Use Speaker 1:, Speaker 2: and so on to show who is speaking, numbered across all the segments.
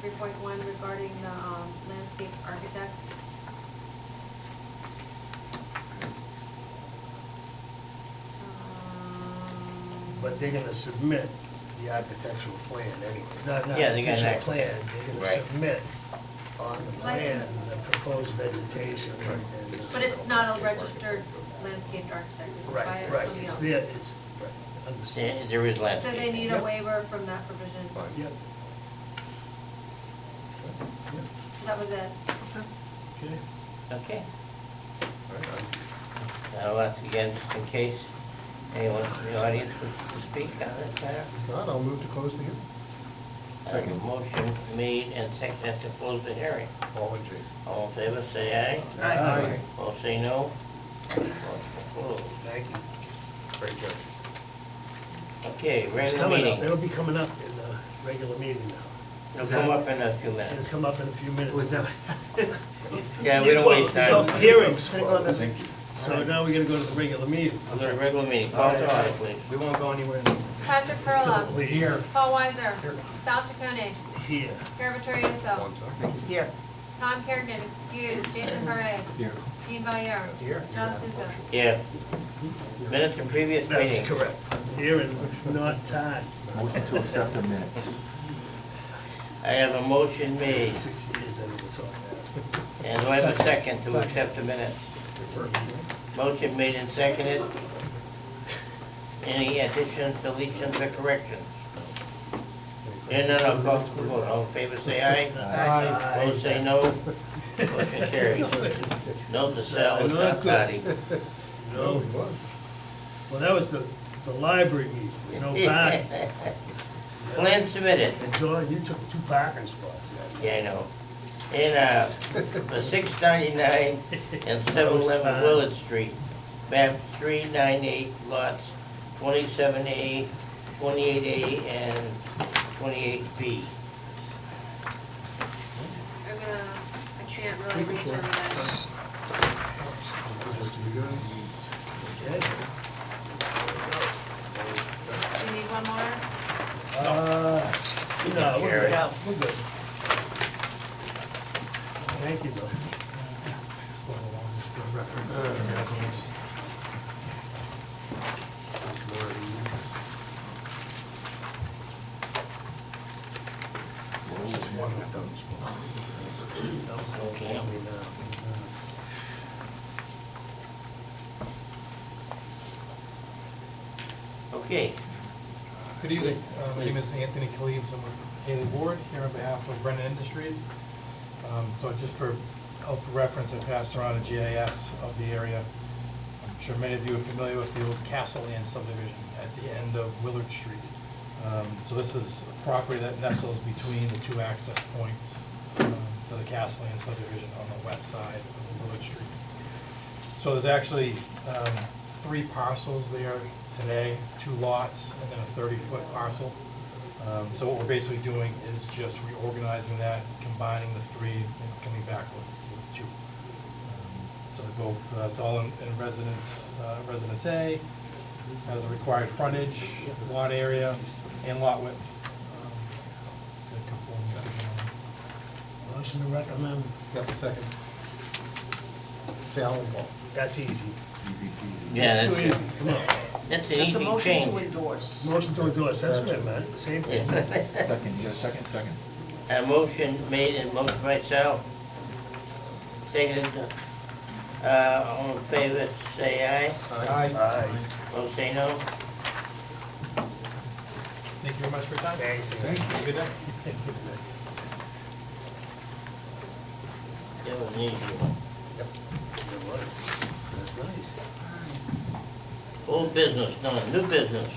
Speaker 1: three point one regarding the um, landscape architect. Um,
Speaker 2: But they're gonna submit the architectural plan anyway, not, not
Speaker 3: Yeah, they're gonna-
Speaker 2: architectural plan, they're gonna
Speaker 3: Right.
Speaker 2: submit on the plan,
Speaker 1: License.
Speaker 2: the proposed vegetation and. and-
Speaker 1: But it's not a registered landscape architect, it's by
Speaker 2: Right, right,
Speaker 1: somebody
Speaker 2: it's
Speaker 1: else.
Speaker 2: there, it's, right, understood.
Speaker 3: There there is last.
Speaker 1: So they need a
Speaker 2: Yep.
Speaker 1: waiver from that provision.
Speaker 4: Fine.
Speaker 2: Yep. Yep,
Speaker 1: That was it.
Speaker 2: Okay.
Speaker 3: Okay.
Speaker 4: All right, I'm-
Speaker 3: Now, uh, again, just in case anyone from the audience would speak on this matter.
Speaker 4: If not, I'll move to close the hearing.
Speaker 3: A Motion made and seconded to close the hearing.
Speaker 4: All in Jason.
Speaker 3: All in favor, say aye.
Speaker 2: Aye. Aye.
Speaker 3: All say no. Motion closed.
Speaker 2: Thank you.
Speaker 4: Great job.
Speaker 3: Okay,
Speaker 2: It's
Speaker 3: regular
Speaker 2: coming up,
Speaker 3: meeting.
Speaker 2: it'll be coming up in the regular meeting now.
Speaker 3: It'll come up in a few
Speaker 2: It'll
Speaker 3: minutes.
Speaker 2: come up in a few minutes.
Speaker 5: Was that?
Speaker 3: Yeah, we don't waste
Speaker 2: Well,
Speaker 3: time.
Speaker 2: Hearings, we're gonna go to-
Speaker 4: Thank you.
Speaker 2: so now we're gonna go to the regular meeting.
Speaker 3: We're gonna regular meeting, call to order, please.
Speaker 5: We won't go anywhere.
Speaker 1: Patrick Perla,
Speaker 2: Here.
Speaker 1: Paul Weiser, Sal Chaconi,
Speaker 2: Here.
Speaker 1: Gary Vittorioso,
Speaker 4: One time.
Speaker 5: Here.
Speaker 1: Tom Kerrigan, excuse, Jason Parre,
Speaker 4: Here.
Speaker 1: Dean Valier, John Souza.
Speaker 3: Yeah. Minutes of previous meeting.
Speaker 2: That's correct. Here and not tied.
Speaker 6: Motion to accept the minutes.
Speaker 3: I have a motion made,
Speaker 2: Six years, I never saw that.
Speaker 3: and do I have a second to accept the minutes? Motion made and seconded. Any additions, deletions, or corrections? Hearing none, I'll call for the vote. All in favor, say aye. Opposed, say no. Motion carries. Note the cell is not body.
Speaker 2: No,
Speaker 4: he was.
Speaker 2: well, that was the, the library meeting, with no parking.
Speaker 3: Plan submitted.
Speaker 2: And John, you took two parking spots.
Speaker 3: Yeah, I know. In, uh, the six ninety-nine and seven eleven Willard Street, map three nine eight lots twenty-seven A, twenty-eight A, and twenty-eight B.
Speaker 1: I'm gonna, I can't really reach over that.
Speaker 2: Okay.
Speaker 1: Do you need one more?
Speaker 2: Uh, No, we're
Speaker 3: Jerry.
Speaker 2: good, we're good. Thank you, though.
Speaker 3: Okay. Okay,
Speaker 7: Good evening. Uh, My name is Anthony Cleaves. I'm with Haley Ward here on behalf of Brennan Industries. Um, So just for, help for reference, I passed around a GIS of the area. I'm sure many of you are familiar with the old Castle Land subdivision at the end of Willard Street. Um, So this is a property that nestles between the two access points um, to the Castle Land subdivision on the west side of Willard Street. So there's actually um, three parcels there today, two lots, and then a 30-foot parcel. Um, So what we're basically doing is just reorganizing that, combining the three, and coming back with with two. Um, So they're both, uh, it's all in in residence, uh, residence A, has a required frontage, lot area, and lot width. Um, got a couple of them that are-
Speaker 2: Motion to recommend,
Speaker 4: Yep, second. Sal and Paul.
Speaker 2: that's easy.
Speaker 6: Easy peasy.
Speaker 3: yeah,
Speaker 2: It's too
Speaker 3: that's,
Speaker 2: easy, come on.
Speaker 3: that's an
Speaker 5: It's a
Speaker 3: easy
Speaker 5: motion to
Speaker 3: change.
Speaker 5: endorse.
Speaker 2: Motion to endorse, that's right, man, same thing.
Speaker 6: Second, you got a second, second?
Speaker 3: A motion made and motion by Sal. Seconded, uh, all in favor, say aye.
Speaker 2: Aye.
Speaker 3: Opposed, say no.
Speaker 7: Thank you very much for your time.
Speaker 2: Thanks.
Speaker 7: Have a Good day.
Speaker 3: That was an easy one.
Speaker 2: It was. That's nice.
Speaker 3: Old business, none, new business.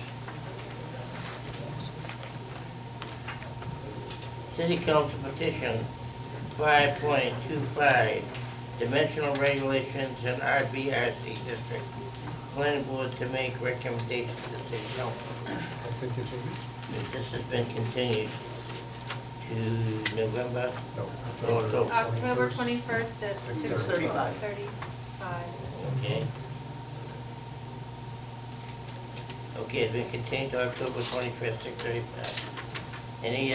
Speaker 3: City Council petition five point two five, dimensional regulations in RBRC district. Planning board to make recommendations to city council.
Speaker 4: Has been continued?
Speaker 3: This has been continued to November,
Speaker 4: No.
Speaker 3: October,
Speaker 1: October twenty-first at six thirty-five.
Speaker 5: 6:35.
Speaker 3: okay? Okay, it's been continued to October twenty-fifth, six thirty-five. Any